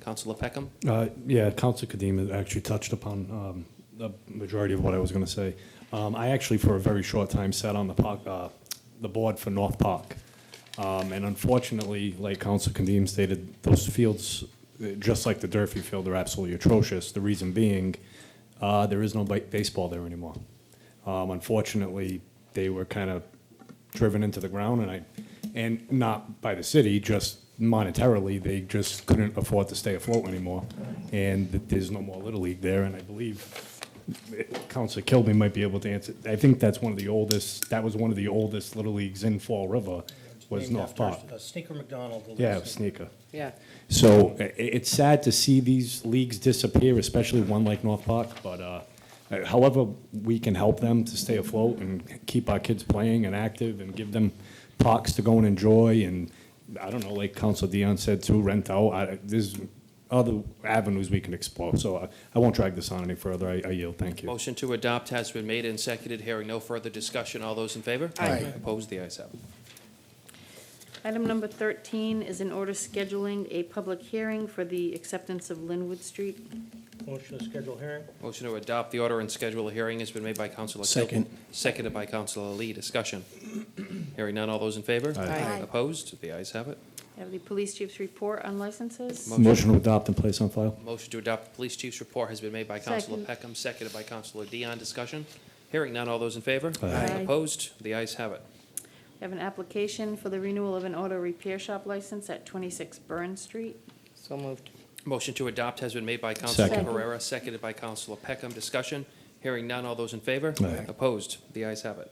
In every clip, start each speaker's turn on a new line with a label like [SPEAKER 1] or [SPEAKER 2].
[SPEAKER 1] Counselor Peckham?
[SPEAKER 2] Uh, Yeah, Council Kadim actually touched upon um, the majority of what I was going to say. Um, I actually, for a very short time, sat on the park, uh, the board for North Park. Um, And unfortunately, like Council Kadim stated, those fields, uh, just like the Durfee Field, are absolutely atrocious. The reason being, uh, there is no ba- baseball there anymore. Um, Unfortunately, they were kind of driven into the ground, and I, and not by the city, just monetarily, they just couldn't afford to stay afloat anymore. And th- there's no more Little League there, and I believe eh, Counselor Kilby might be able to answer. I think that's one of the oldest, that was one of the oldest Little Leagues in Fall River, was
[SPEAKER 3] Named
[SPEAKER 2] North
[SPEAKER 3] after,
[SPEAKER 2] Park.
[SPEAKER 3] uh, Sneaker McDonald. the
[SPEAKER 2] Yeah,
[SPEAKER 3] lead singer.
[SPEAKER 2] Sneaker.
[SPEAKER 1] Yeah.
[SPEAKER 2] So i- i- it's sad to see these leagues disappear, especially one like North Park, but uh, however, we can help them to stay afloat and keep our kids playing and active and give them parks to go and enjoy and, I don't know, like Council Dion said too, rent out. I- There's other avenues we can explore, so I- I won't drag this on any further. I I yield, thank you.
[SPEAKER 1] Motion to adopt has been made and seconded. Hearing no further discussion. All those in favor?
[SPEAKER 4] Aye.
[SPEAKER 1] Opposed? The ayes have it.
[SPEAKER 4] Item number 13 is an order scheduling a public hearing for the acceptance of Linwood Street.
[SPEAKER 3] Motion to schedule hearing.
[SPEAKER 1] Motion to adopt the order and schedule a hearing has been made by Counselor Kilby.
[SPEAKER 5] Second.
[SPEAKER 1] Seconded by Counselor Lee. Discussion. Hearing none. All those in favor?
[SPEAKER 5] Aye. Aye.
[SPEAKER 1] Opposed? The ayes have it.
[SPEAKER 4] Have the police chief's report on licenses.
[SPEAKER 2] Motion to adopt and place on file?
[SPEAKER 1] Motion to adopt the police chief's report has been made by Counselor
[SPEAKER 4] Second.
[SPEAKER 1] Peckham, seconded by Counselor Dion. Discussion. Hearing none. All those in favor?
[SPEAKER 2] Aye.
[SPEAKER 4] Aye.
[SPEAKER 1] Opposed? The ayes have it.
[SPEAKER 4] We Have an application for the renewal of an auto repair shop license at 26 Burn Street.
[SPEAKER 6] So moved.
[SPEAKER 1] Motion to adopt has been made by Counselor
[SPEAKER 2] Second.
[SPEAKER 1] Pereira, seconded by Counselor Peckham. Discussion. Hearing none. All those in favor?
[SPEAKER 2] Aye.
[SPEAKER 1] Opposed? The ayes have it.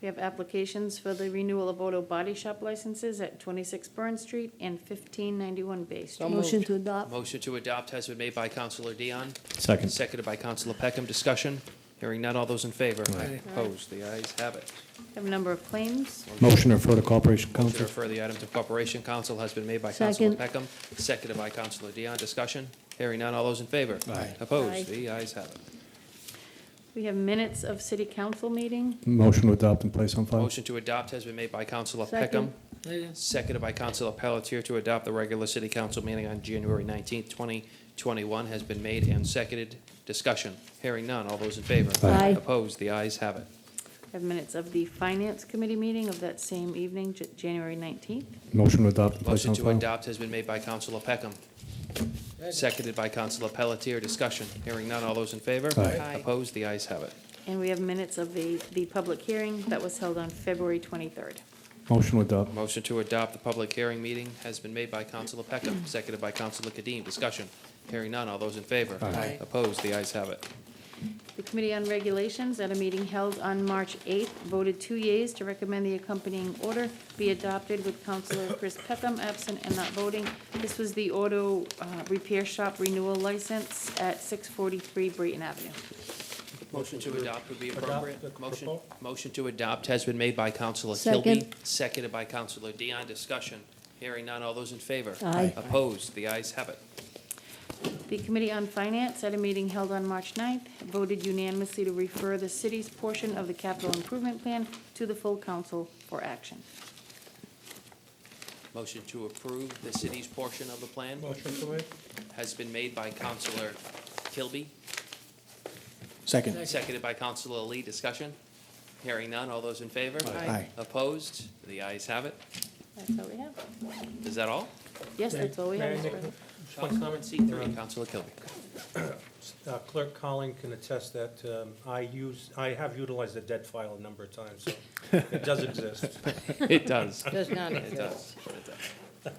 [SPEAKER 4] We have applications for the renewal of auto body shop licenses at 26 Burn Street and 1591
[SPEAKER 6] So
[SPEAKER 4] Bay Street.
[SPEAKER 6] moved.
[SPEAKER 7] Motion to
[SPEAKER 4] Uh,
[SPEAKER 7] adopt.
[SPEAKER 1] Motion to adopt has been made by Counselor Dion,
[SPEAKER 2] Second.
[SPEAKER 1] seconded by Counselor Peckham. Discussion. Hearing none. All those in favor?
[SPEAKER 2] Aye.
[SPEAKER 1] Opposed? The ayes have it.
[SPEAKER 4] We Have a number of claims.
[SPEAKER 2] Motion to refer to Corporation
[SPEAKER 1] Motion to
[SPEAKER 2] Council?
[SPEAKER 1] refer the item to Corporation Council has been made by Counselor
[SPEAKER 7] Second.
[SPEAKER 1] Peckham, seconded by Counselor Dion. Discussion. Hearing none. All those in favor?
[SPEAKER 5] Aye.
[SPEAKER 4] Aye.
[SPEAKER 1] Opposed? The ayes have it.
[SPEAKER 4] We have minutes of city council meeting.
[SPEAKER 2] Motion to adopt and place on file?
[SPEAKER 1] Motion to adopt has been made by Counselor Peckham, seconded by Counselor Pelletier to adopt the regular city council meeting on January nineteenth, twenty twenty-one has been made and seconded. Discussion. Hearing none. All those in favor?
[SPEAKER 7] Aye. Aye.
[SPEAKER 1] Opposed? The ayes have it.
[SPEAKER 4] We Have minutes of the finance committee meeting of that same evening, J- January 19th.
[SPEAKER 2] Motion to adopt and place
[SPEAKER 1] Motion
[SPEAKER 2] on
[SPEAKER 1] to
[SPEAKER 2] file?
[SPEAKER 1] adopt has been made by Counselor Peckham, seconded by Counselor Pelletier. Discussion. Hearing none. All those in favor?
[SPEAKER 2] Aye.
[SPEAKER 6] Aye.
[SPEAKER 1] Opposed? The ayes have it.
[SPEAKER 4] And we have minutes of the, the public hearing that was held on February 23rd.
[SPEAKER 2] Motion to adopt.
[SPEAKER 1] Motion to adopt the public hearing meeting has been made by Counselor Peckham, seconded by Counselor Kadim. Discussion. Hearing none. All those in favor?
[SPEAKER 6] Aye.
[SPEAKER 1] Opposed? The ayes have it.
[SPEAKER 4] The Committee on Regulations, at a meeting held on March 8th, voted two yeas to recommend the accompanying order be adopted with Counselor Chris Peckham absent and not voting. This was the auto uh, repair shop renewal license at 643 Brayton Avenue.
[SPEAKER 1] Motion to adopt would be
[SPEAKER 3] Adopt
[SPEAKER 1] appropriate.
[SPEAKER 3] the
[SPEAKER 1] Motion,
[SPEAKER 3] proposal.
[SPEAKER 1] motion to adopt has been made by Counselor Kilby,
[SPEAKER 7] Second.
[SPEAKER 1] seconded by Counselor Dion. Discussion. Hearing none. All those in favor?
[SPEAKER 7] Aye.
[SPEAKER 1] Opposed? The ayes have it.
[SPEAKER 4] The Committee on Finance, at a meeting held on March 9th, voted unanimously to refer the city's portion of the capital improvement plan to the full council for action.
[SPEAKER 1] Motion to approve the city's portion of the plan
[SPEAKER 3] Motion to waive.
[SPEAKER 1] has been made by Counselor Kilby,
[SPEAKER 5] Second.
[SPEAKER 1] Seconded by Counselor Lee. Discussion? Hearing none. All those in favor?
[SPEAKER 6] Aye.
[SPEAKER 5] Aye.
[SPEAKER 1] Opposed? The ayes have it.
[SPEAKER 4] That's all we have.
[SPEAKER 1] Is that all?
[SPEAKER 4] Yes, that's all we have. Mr.
[SPEAKER 3] May I
[SPEAKER 4] President.
[SPEAKER 1] Public comment C three, Counselor Kilby.
[SPEAKER 3] Uh, Clerk Colling can attest that um, I use, I have utilized the dead file a number of times, so it does exist.
[SPEAKER 1] It does.
[SPEAKER 6] Does not
[SPEAKER 1] It does. It does.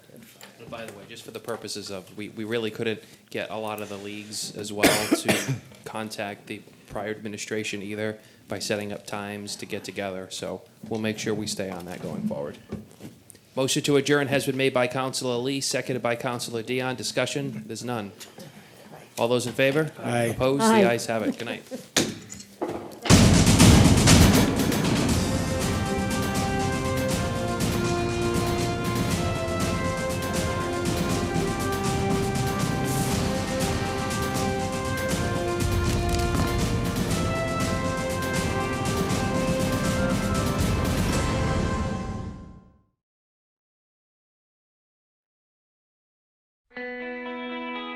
[SPEAKER 1] And By the way, just for the purposes of, we, we really couldn't get a lot of the leagues as well to contact the prior administration either by setting up times to get together, so we'll make sure we stay on that going forward. Motion to adjourn has been made by Counselor Lee, seconded by Counselor Dion. Discussion? There's none. All those in favor?
[SPEAKER 5] Aye.
[SPEAKER 1] Opposed? The
[SPEAKER 7] Aye.
[SPEAKER 1] ayes have it. Good night.